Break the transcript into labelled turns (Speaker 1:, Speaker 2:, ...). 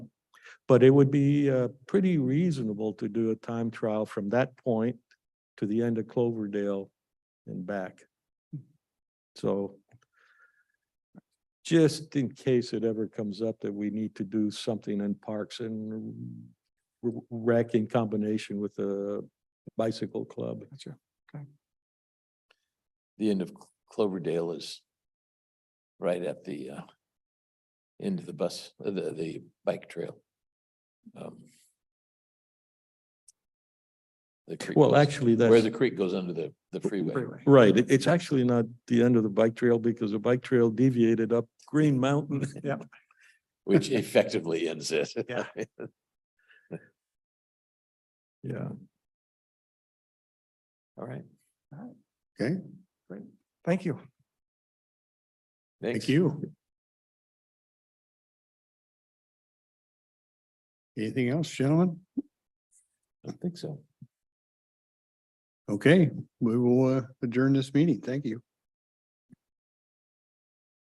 Speaker 1: But it would be uh, pretty reasonable to do a time trial from that point to the end of Cloverdale and back. So just in case it ever comes up that we need to do something in parks and r- rec in combination with the bicycle club.
Speaker 2: Gotcha.
Speaker 3: The end of Cloverdale is right at the uh, end of the bus, uh, the, the bike trail. Um, The creek.
Speaker 1: Well,
Speaker 3: goes-
Speaker 1: actually,
Speaker 3: Where
Speaker 1: that's,
Speaker 3: the creek goes under the, the freeway.
Speaker 2: Freeway.
Speaker 1: right, it- it's actually not the end of the bike trail because the bike trail deviated up Green Mountain.
Speaker 2: Yep.
Speaker 3: Which effectively ends it.
Speaker 2: Yeah.
Speaker 1: Yeah.
Speaker 3: All right.
Speaker 4: Okay,
Speaker 2: Thank you.
Speaker 4: thank
Speaker 3: Thanks.
Speaker 4: you. Anything else, gentlemen?
Speaker 3: I don't think so.
Speaker 4: Okay, we will uh, adjourn this meeting. Thank you.